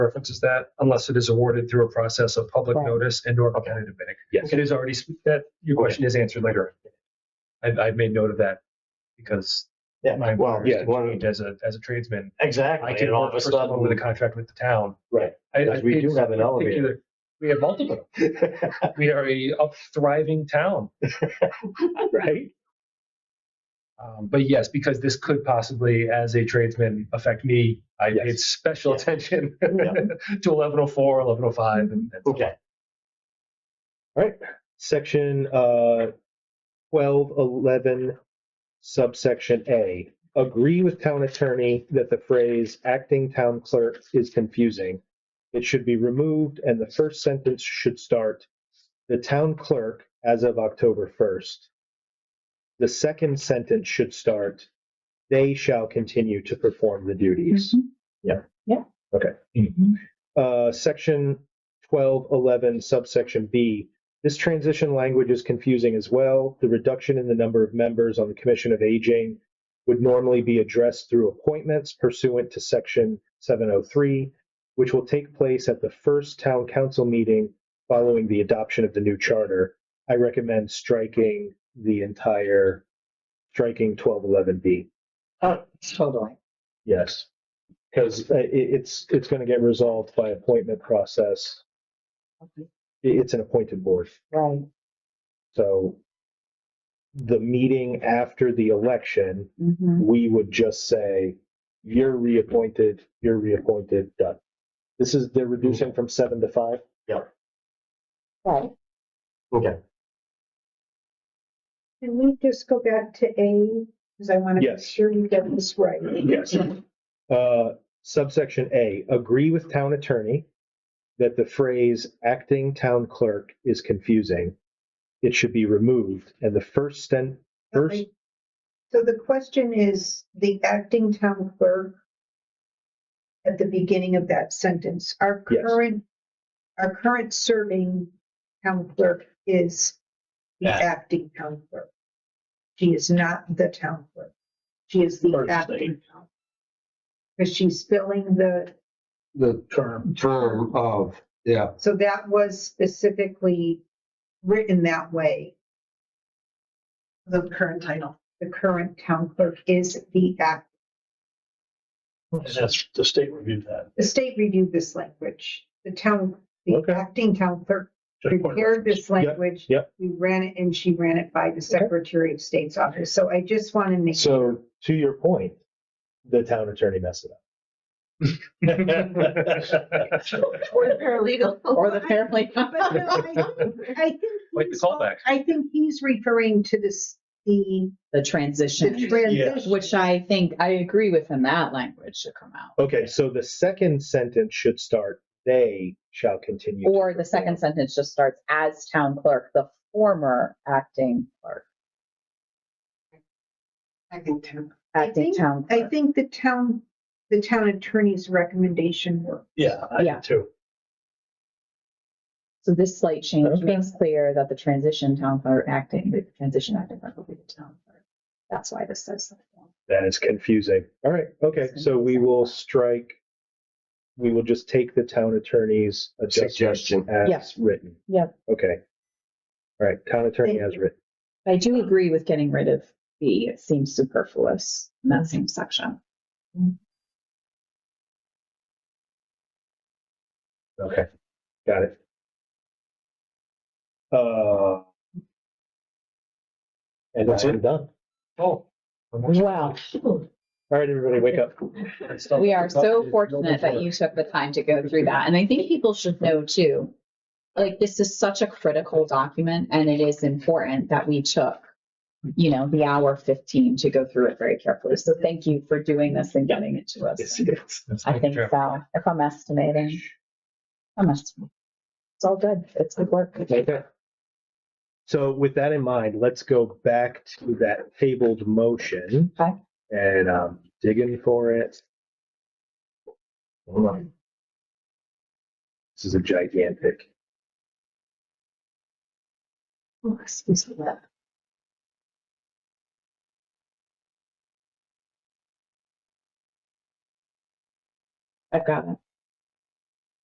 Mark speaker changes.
Speaker 1: preference is that unless it is awarded through a process of public
Speaker 2: Right.
Speaker 1: notice and or
Speaker 3: Okay.
Speaker 1: competitive bidding.
Speaker 3: Yes.
Speaker 1: It is already, s- that, your question is answered later. I, I made note of that because
Speaker 4: Yeah,
Speaker 1: my
Speaker 4: well,
Speaker 1: employer
Speaker 3: yeah,
Speaker 1: is
Speaker 4: one-
Speaker 1: constrained as a, as a tradesman.
Speaker 4: Exactly.
Speaker 1: I
Speaker 4: And
Speaker 1: can
Speaker 4: all
Speaker 1: work
Speaker 4: of a
Speaker 1: for someone with a
Speaker 4: sudden,
Speaker 1: contract with the town.
Speaker 3: Right.
Speaker 1: I-
Speaker 4: Because
Speaker 1: I
Speaker 4: we
Speaker 1: paid
Speaker 4: do have an elevator.
Speaker 1: particular- We have multiple. We are a up thriving town.
Speaker 3: Right?
Speaker 1: Um, but yes, because this could possibly, as a tradesman, affect me. I
Speaker 3: Yes.
Speaker 1: paid special
Speaker 4: Yeah.
Speaker 1: attention
Speaker 4: Yeah.
Speaker 1: to 1104, 1105, and, and so
Speaker 4: okay.
Speaker 3: Section uh, 1211, subsection A. Agree with town attorney that the phrase acting town clerk is confusing. It should be removed, and the first sentence should start the town clerk as of October 1st. The second sentence should start they shall continue to perform the duties. Uh, section 1211, subsection B. This transition language is confusing as well. The reduction in the number of members on the Commission of Aging would normally be addressed through appointments pursuant to Section 703, which will take place at the first town council meeting following the adoption of the new charter. I recommend striking the entire, striking 1211B.
Speaker 2: Oh, totally.
Speaker 3: Yes. Because it, it's, it's going to get resolved by appointment process.
Speaker 2: Okay.
Speaker 3: It- It's an appointed board.
Speaker 2: Right.
Speaker 3: So the meeting after the election,
Speaker 5: Mm-hmm.
Speaker 2: Mhm.
Speaker 3: we would just say, you're reappointed, you're reappointed, done. This is, they're reducing from seven to five?
Speaker 2: Right.
Speaker 4: Okay.
Speaker 5: Can we just go back to A, because I want to make
Speaker 3: Yes.
Speaker 5: sure you get this right.
Speaker 3: Yes. Uh, subsection A, agree with town attorney that the phrase acting town clerk is confusing. It should be removed and the first stent, first,
Speaker 5: Okay. So the question is, the acting town clerk at the beginning of that sentence, our
Speaker 3: Yes.
Speaker 5: current, our current serving town clerk is the
Speaker 4: Yeah.
Speaker 5: acting town clerk. She is not the town clerk. She is the
Speaker 4: Clerk's
Speaker 5: acting town. Because she's filling the,
Speaker 4: The term. Term of, yeah.
Speaker 5: so that was specifically written that way. The current title, the current town clerk is the act,
Speaker 4: And that's, the state reviewed that.
Speaker 5: the state reviewed this language. The town, the
Speaker 3: Okay.
Speaker 5: acting town clerk
Speaker 4: Just point-
Speaker 5: prepared this language.
Speaker 3: yep.
Speaker 5: We ran it and she ran it by the Secretary of State's office. So I just want to make.
Speaker 3: so to your point, the town attorney messed it
Speaker 1: forth.
Speaker 6: Or the paralegal.
Speaker 2: Or the family.
Speaker 5: But no, I- I think
Speaker 1: Like the
Speaker 5: he's-
Speaker 1: callback.
Speaker 5: I think he's referring to this, the
Speaker 6: The
Speaker 5: the
Speaker 6: transition,
Speaker 5: transition.
Speaker 6: which I think, I agree with him, that language should come out.
Speaker 3: up. Okay, so the second sentence should start, they shall continue. to
Speaker 6: Or the second sentence just starts as town clerk, the former acting clerk,
Speaker 5: Acting town. I
Speaker 6: acting
Speaker 5: think-
Speaker 6: town
Speaker 5: I
Speaker 6: clerk.
Speaker 5: think the town, the town attorney's recommendation worked.
Speaker 4: Yeah, I
Speaker 6: Yeah.
Speaker 4: did too.
Speaker 6: So this slight change
Speaker 3: Okay.
Speaker 6: makes clear that the transition town clerk acting, the transition acting clerk will be the town clerk. That's why this says. that.
Speaker 3: That is confusing. All right, okay, so we will strike, we will just take the town attorney's
Speaker 4: Suggestion.
Speaker 3: suggestion
Speaker 6: Yeah.
Speaker 3: as written.
Speaker 6: Yep.
Speaker 3: Okay. All right, town attorney
Speaker 5: Thank
Speaker 3: as
Speaker 5: you.
Speaker 3: written.
Speaker 6: I do agree with getting rid of B. It seems superfluous in that same section.
Speaker 3: Okay, got it. Uh. And
Speaker 4: That's
Speaker 3: I am
Speaker 4: it?
Speaker 3: done.
Speaker 1: Oh,
Speaker 6: Wow.
Speaker 3: All right, everybody, wake up.
Speaker 6: We are so fortunate that you took the time to go through that. And I think people should know too. Like, this is such a critical document and it is important that we took, you know, the hour fifteen to go through it very carefully. So thank you for doing this and getting it to us. I think so, if I'm estimating. I'm estimating. It's all good. It's good work.
Speaker 3: Okay. So with that in mind, let's go back to that tabled motion.
Speaker 6: Okay.
Speaker 3: And um, digging for it. Hold on. This is a gigantic.
Speaker 6: Oh, Excuse me. I've got it.